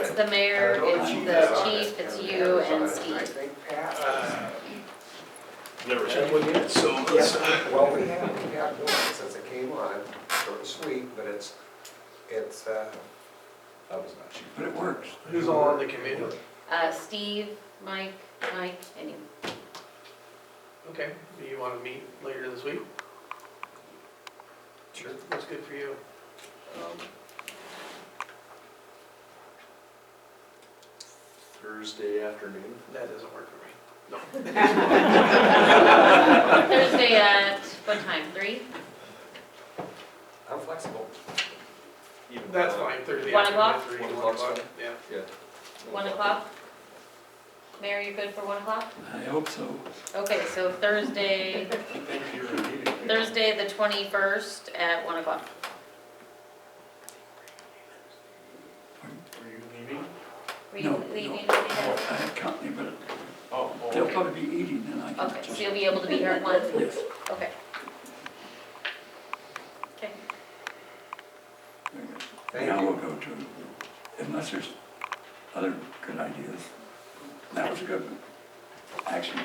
the mayor, it's the chief, it's you and Steve. Uh, Never And said. we did. So let's, Yeah, well, we have, we have donuts as it came on, short and sweet, but it's, it's, uh, that was not cheap. But it works. Who's all on the committee? Uh, Steve, Mike, Mike, and you. Okay, do you want to meet later this week? Sure. That's good for you. Um, Thursday afternoon. That doesn't work for me. Thursday at what time, three? I'm flexible. even That's though- fine, Thursday One afternoon, o'clock? three, One one o'clock's o'clock, yeah. One o'clock? Mayor, you good for one o'clock? I hope so. Okay, so Thursday, Thursday, the twenty-first at one o'clock. Were you leaving? Were you No, leaving? anything? no. I have company, but Oh, oh, they'll okay. probably be eating and I Okay, can so just. you'll be able to be here at one? Yes, Okay. Okay, very good. Thank Now you. we'll go to, unless there's other good ideas. That was a good one. Action.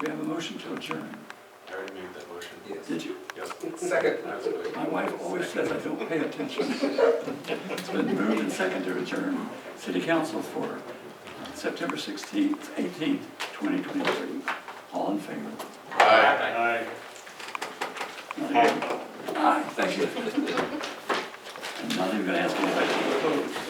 We have a motion to adjourn. I already made that motion. Yes. Did you? Second. My wife always says I don't pay attention. It's been moved and seconded to adjourn city council for September 16th, 18th, 2023. All in favor? Aye. Aye, thank you. I'm not even going to ask anybody to vote.